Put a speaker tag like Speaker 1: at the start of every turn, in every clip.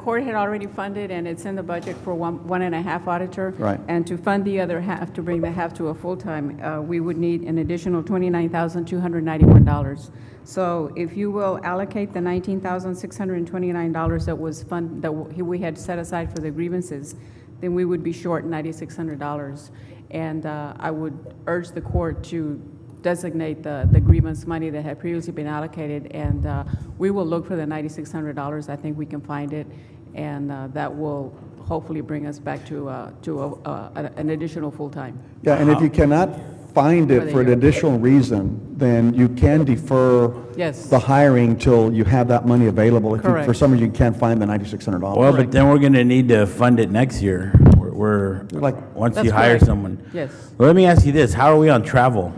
Speaker 1: Court had already funded, and it's in the budget for one, one and a half auditor.
Speaker 2: Right.
Speaker 1: And to fund the other half, to bring the half to a full-time, uh, we would need an additional $29,291. So if you will allocate the $19,629 that was fund, that w- we had set aside for the grievances, then we would be short $9,600. And uh, I would urge the court to designate the, the grievance money that had previously been allocated, and uh, we will look for the $9,600. I think we can find it, and uh, that will hopefully bring us back to, uh, to a- a- an an additional full-time.
Speaker 2: Yeah, and
Speaker 1: Uh-huh.
Speaker 2: if you cannot find
Speaker 1: For
Speaker 2: it
Speaker 1: the
Speaker 2: for an
Speaker 1: year.
Speaker 2: additional reason, then you can defer
Speaker 1: Yes.
Speaker 2: the hiring till you have that money available. If you- For
Speaker 1: Correct.
Speaker 2: some reason, you can't find the $9,600.
Speaker 3: Well, but then we're gonna need to fund it next year. We're- We're,
Speaker 2: Like-
Speaker 3: once
Speaker 1: That's
Speaker 3: you hire
Speaker 1: correct.
Speaker 3: someone.
Speaker 1: Yes.
Speaker 3: Let me ask you this, how are we on travel?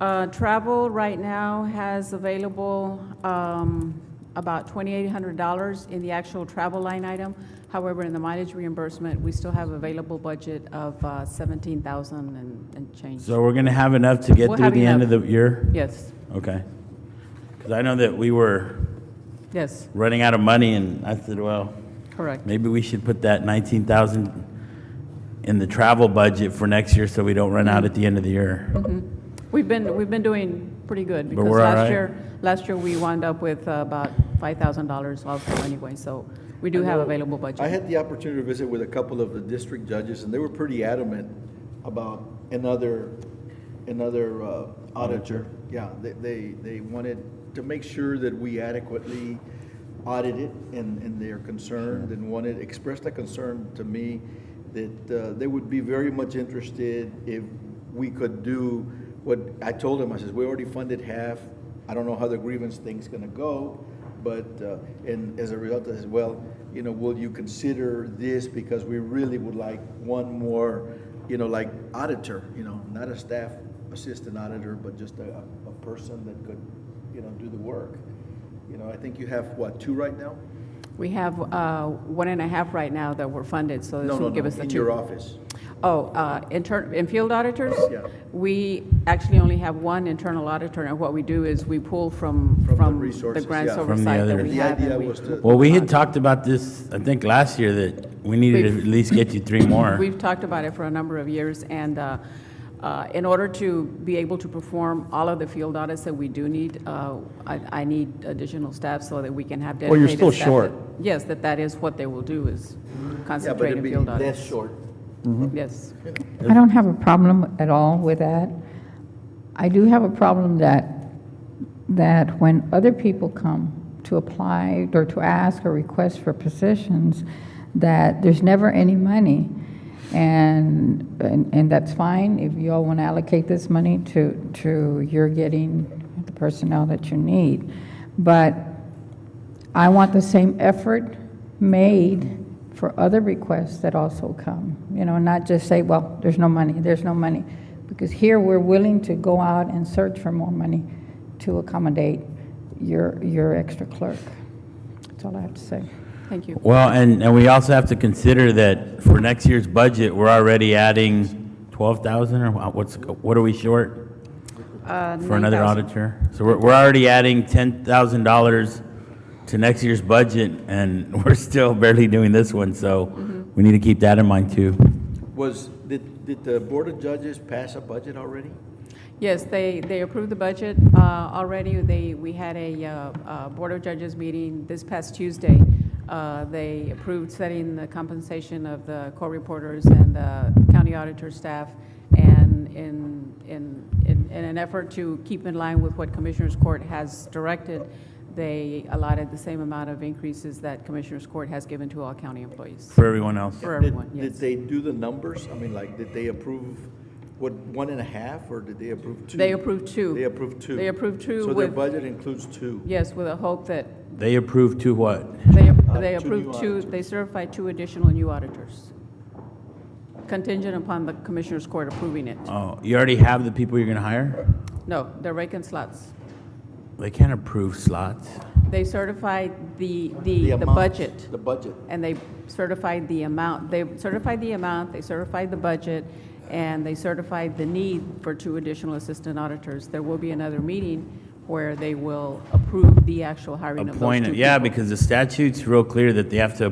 Speaker 1: Uh, Travel right now has available um, about $2,800 in the actual travel line item. However, in the mileage reimbursement, we still have available budget of uh, $17,000 and and change.
Speaker 3: So we're gonna have enough to get
Speaker 1: We'll
Speaker 3: through
Speaker 1: have
Speaker 3: the end of the
Speaker 1: enough.
Speaker 3: year?
Speaker 1: Yes,
Speaker 3: Okay. Because I know that we were
Speaker 1: yes,
Speaker 3: running out of money and I said, well,
Speaker 1: correct.
Speaker 3: maybe we should put that nineteen thousand in the travel budget for next year so we don't run out at the end of the year.
Speaker 1: We've been, we've been doing pretty good, because
Speaker 3: we're all right.
Speaker 1: last year, last year, we wound up with uh, about $5,000 also anyway, so we do have available budget.
Speaker 4: I had the opportunity to visit with a couple of the district judges, and they were pretty adamant about another, another uh, auditor. Yeah, they, they, they wanted to make sure that we adequately audit it, and, and they're concerned, and wanted, expressed a concern to me that uh, they would be very much interested if we could do what, I told them, I says, we already funded half, I don't know how the grievance thing's gonna go, but, uh, and as a result, I says, well, you know, will you consider this because we really would like one more, you know, like auditor, you know, not a staff assistant auditor, but just a, a person that could, you know, do the work. You know, I think you have, what, two right now?
Speaker 1: We have uh, one and a half right now that were funded, so this
Speaker 4: No, no,
Speaker 1: will give us
Speaker 4: no,
Speaker 1: the
Speaker 4: in
Speaker 1: two.
Speaker 4: your office.
Speaker 1: Oh, uh, intern, in field auditors?
Speaker 4: Yeah.
Speaker 1: We actually only have one internal auditor, and what we do is we pull from,
Speaker 4: From the
Speaker 1: from the
Speaker 4: resources,
Speaker 1: grants
Speaker 4: yeah.
Speaker 3: From the
Speaker 1: oversight that
Speaker 3: others.
Speaker 1: we
Speaker 4: The
Speaker 1: have. and
Speaker 4: idea
Speaker 1: we-
Speaker 4: was to-
Speaker 3: Well, we had talked about this, I think, last year that we needed to
Speaker 1: We've-
Speaker 3: at least get you three more.
Speaker 1: We've talked about it for a number of years, and uh, uh, in order to be able to perform all of the field audits that we do need, uh, I I need additional staff so that we can have
Speaker 2: Well, you're
Speaker 1: dedicated staff.
Speaker 2: still short.
Speaker 1: that- Yes, that that is what they will do, is
Speaker 4: Yeah, but
Speaker 1: concentrate
Speaker 4: it'd
Speaker 1: in
Speaker 4: be Mm-hmm.
Speaker 1: field
Speaker 4: that
Speaker 1: audits.
Speaker 4: short.
Speaker 1: Yes,
Speaker 5: I don't have a problem at all with that. I do have a problem that, that when other people come to apply or to ask or request for positions, that there's never any money. And, and, and that's fine if you all want to allocate this money to, to your getting the personnel that you need. But I want the same effort made for other requests that also come, you know, not just say, well, there's no money, there's no money. Because here, we're willing to go out and search for more money to accommodate your, your extra clerk. That's all I have to say.
Speaker 1: thank you.
Speaker 3: Well, and, and we also have to consider that for next year's budget, we're already adding twelve thousand, or wha- what's, what are we short for another auditor? So we're, we're already adding ten thousand dollars to next year's budget, and we're still barely doing this one, so we need to keep that in mind too.
Speaker 4: Was, did, did the Board of Judges pass a budget already?
Speaker 1: Yes, they, they approved the budget uh, already. They, we had a uh, uh, Board of Judges meeting this past Tuesday. Uh, They approved setting the compensation of the court reporters and the county auditor staff, and in, in, in in an effort to keep in line with what Commissioners Court has directed, they allotted the same amount of increases that Commissioners Court has given to all county employees,
Speaker 3: For everyone else,
Speaker 1: for
Speaker 4: Did-
Speaker 1: everyone,
Speaker 4: Did
Speaker 1: yes.
Speaker 4: they do the numbers? I mean, like, did they approve, what, one and a half, or did they approve two?
Speaker 1: They approved two.
Speaker 4: They approved two.
Speaker 1: They approved two
Speaker 4: So their
Speaker 1: with-
Speaker 4: budget includes two.
Speaker 1: Yes, with a hope that
Speaker 3: they approve to what?
Speaker 1: They,
Speaker 4: Uh,
Speaker 1: they
Speaker 4: two
Speaker 1: approved
Speaker 4: new
Speaker 1: two,
Speaker 4: auditors.
Speaker 1: they certified two additional new auditors, contingent upon the Commissioners Court approving
Speaker 4: Uh.
Speaker 1: it.
Speaker 3: Oh, you already have the people you're gonna hire?
Speaker 1: No, they're vacant slots.
Speaker 3: They can't approve slots.
Speaker 1: They certified the, the, the
Speaker 4: amount,
Speaker 1: budget,
Speaker 4: The budget.
Speaker 1: and they certified the amount, they certified the amount, they certified the budget, and they certified the need for two additional assistant auditors. There will be another meeting where they will approve the actual hiring of those two
Speaker 3: Appoint, yeah,
Speaker 1: people.
Speaker 3: because the statute's real clear that they have to